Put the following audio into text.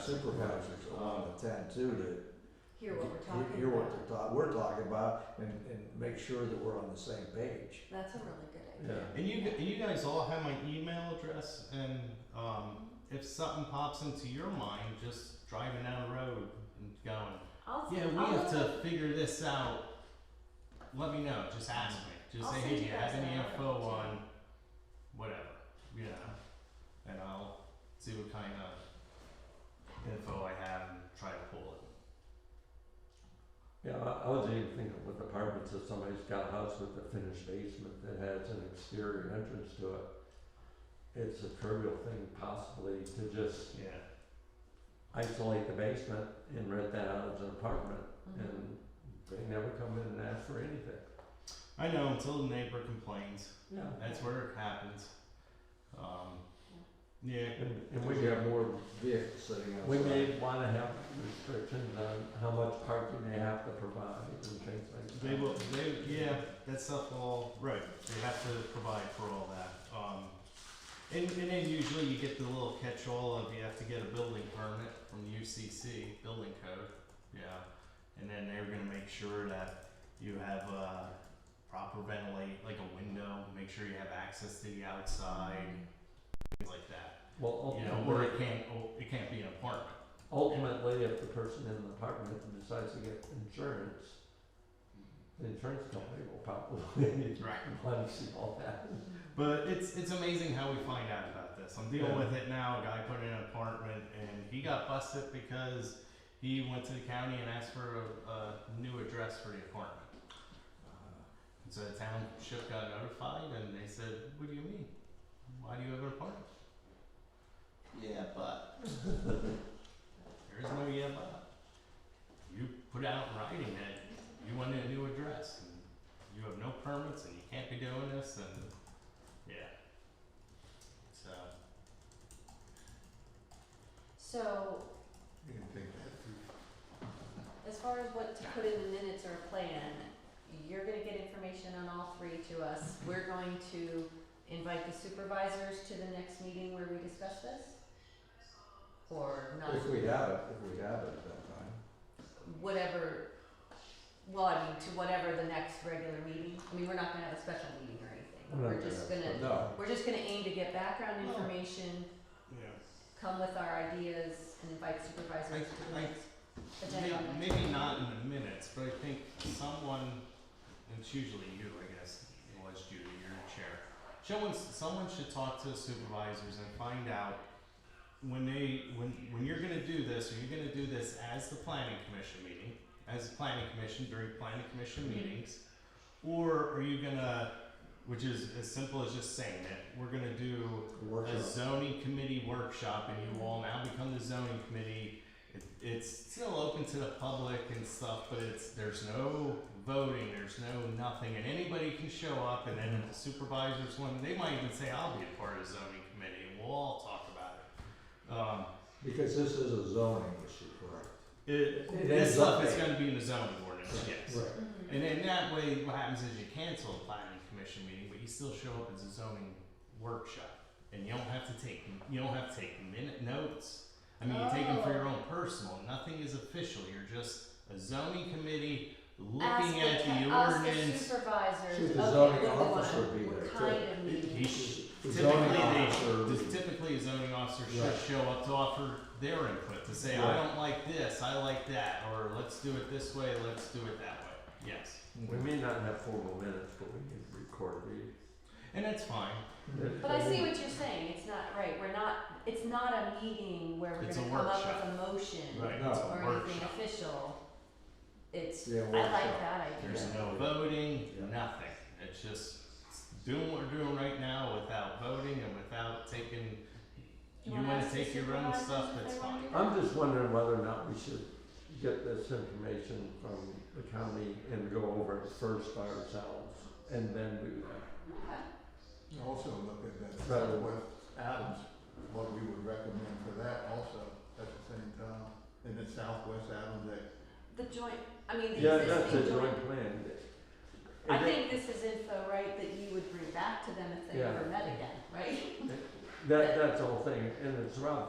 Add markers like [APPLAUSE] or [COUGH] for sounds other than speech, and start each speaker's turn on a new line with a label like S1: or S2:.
S1: advertisers on the tent too
S2: hear what we're
S1: to
S2: talking about.
S1: hear what they're talk, we're talking about and, and make sure that we're on the same page.
S2: That's a really good
S1: Yeah.
S2: idea.
S3: And you, gu- and you guys all have my email address, and um, if something pops into your mind, just driving down the road and going,
S2: I'll
S3: yeah,
S2: send,
S3: we
S2: I'll
S3: have
S2: look
S3: to figure this out. Let me know. Just ask me. Just
S2: I'll
S3: say,
S2: send
S3: hey, do
S2: you
S3: you
S2: guys
S3: have any
S2: that
S3: info
S2: too.
S3: on whatever, you know, and I'll see what kind of info I have and try to pull it.
S4: Yeah, I, I was even thinking with apartments, if somebody's got a house with a finished basement that has an exterior entrance to it, it's a trivial thing possibly to just
S3: Yeah.
S4: isolate the basement and rent that out as an apartment,
S2: Mhm.
S4: and they never come in and ask for anything.
S3: I know until the neighbor complains.
S4: Yeah.
S3: That's where it happens. Um, yeah.
S4: And, and
S1: We
S4: we,
S1: have more vehicles sitting outside.
S4: we may wanna have restrictions on how much parking they have to provide and things like that.
S3: They will. They yeah. That stuff all right. They have to provide for all that. Um, and, and then usually you get the little catch-all of you have to get a building permit from the UCC building code. Yeah, and then they're gonna make sure that you have uh, proper ventilate, like a window. Make sure you have access to the outside, things like that.
S4: Well,
S3: You know,
S4: ultimately,
S3: or it can't. oh, It can't be an apartment.
S4: ultimately, if the person in the apartment decides to get insurance, the insurance company will probably [LAUGHS]
S3: Right.
S4: want to see all that.
S3: But it's it's amazing how we find out about this. I'm dealing
S4: Yeah.
S3: with it now. A guy put in an apartment and he got busted because he went to the county and asked for a, a new address for the apartment.
S1: Uh,
S3: And so the township got notified and they said, "What do you mean? Why do you have an apartment?" Yeah, but [LAUGHS] there's no yeah but. You put out in writing that you want a new address and you have no permits and you can't be doing this and yeah. So
S2: So,
S1: You can think that.
S2: as far as what to put in the minutes or a plan, you're gonna get information on all three to us. We're going to invite the supervisors to the next meeting where we discuss this? Or not?
S1: If we have it, if we have it at that time.
S2: Whatever, well, I mean, to whatever the next regular meeting. I mean, we're not gonna have a special meeting or anything.
S4: We're not
S2: We're just
S4: gonna have a
S2: gonna,
S1: No,
S2: we're just gonna aim to get background
S3: No.
S2: information,
S3: yeah.
S2: come with our ideas and invite supervisors to the
S3: I- I-
S2: next agenda. item.
S3: Maybe, maybe not in the minutes, but I think someone, and it's usually you, I guess, it was Judy, you're in chair. Someone, someone should talk to the supervisors and find out when they, when, when you're gonna do this, are you gonna do this as the planning commission meeting? As the planning commission during planning commission meetings? Or are you gonna, which is as simple as just saying it, we're gonna do a
S1: workshop.
S3: zoning committee workshop and you all now become the zoning committee. It, it's still open to the public and stuff, but it's, there's no voting, there's no nothing, and anybody can show up and then if the supervisors want, they might even say, I'll be a part of the zoning committee and we'll all talk about it. Um,
S1: Because this is a zoning issue, correct?
S3: it,
S1: It
S3: this
S1: is
S3: stuff is
S1: updated.
S3: gonna be in the zoning ordinance, yes.
S1: Right.
S2: Mhm.
S3: And then that way, what happens is you cancel a planning commission meeting, but you still show up as a zoning workshop, and you don't have to take you don't have to take minute notes. I mean, you take them for your own personal. Nothing is official. You're just a zoning committee looking
S2: Ask
S3: at the
S2: ca- ask
S3: ordinance.
S2: supervisors,
S1: Should the
S2: okay,
S1: zoning
S2: what do we
S1: officer
S2: want?
S1: be
S2: What
S1: there,
S2: kind
S1: too?
S2: of
S3: He-
S2: meeting?
S3: he sh-
S1: The
S3: typically,
S1: zoning
S3: they,
S1: officer-
S3: just typically a zoning officer
S1: Right.
S3: should show up to offer their input to say,
S1: Right.
S3: I don't like this, I like that, or let's do it this way, let's do it that way. Yes,
S1: Mm-hmm.
S4: We may not have formal minutes, but we need to record these.
S3: and that's fine.
S2: But I see what you're saying, it's not, right, we're not, it's not a meeting where we're
S3: It's a
S2: gonna come up
S3: workshop.
S2: with a motion
S3: Right.
S1: No.
S3: It's a
S2: or anything
S3: workshop.
S2: official. It's,
S1: Yeah,
S2: I
S1: workshop.
S2: like that
S3: There's
S2: idea,
S3: no voting,
S1: Yeah.
S3: nothing. It's just doing what we're doing right now without voting and without taking.
S2: You
S3: You
S2: wanna
S3: wanna
S2: ask the
S3: take your own
S2: supervisors
S3: stuff,
S2: if
S3: that's
S2: they wanna
S3: fine.
S2: do that?
S4: I'm just wondering whether or not we should get this information from the county and go over it first by ourselves and then do that.
S2: Okay.
S5: Also look at that,
S4: Right.
S5: what Adams, what we would recommend for that also at the same time, and then Southwest Adams that.
S2: The joint, I mean,
S4: Yeah,
S2: the
S4: that's a
S2: existing joint,
S4: joint plan.
S2: I
S4: And that-
S2: think this is info, right, that you would bring back to them if they
S4: Yeah.
S2: ever met again, right?
S4: That, that's the whole thing, and it's around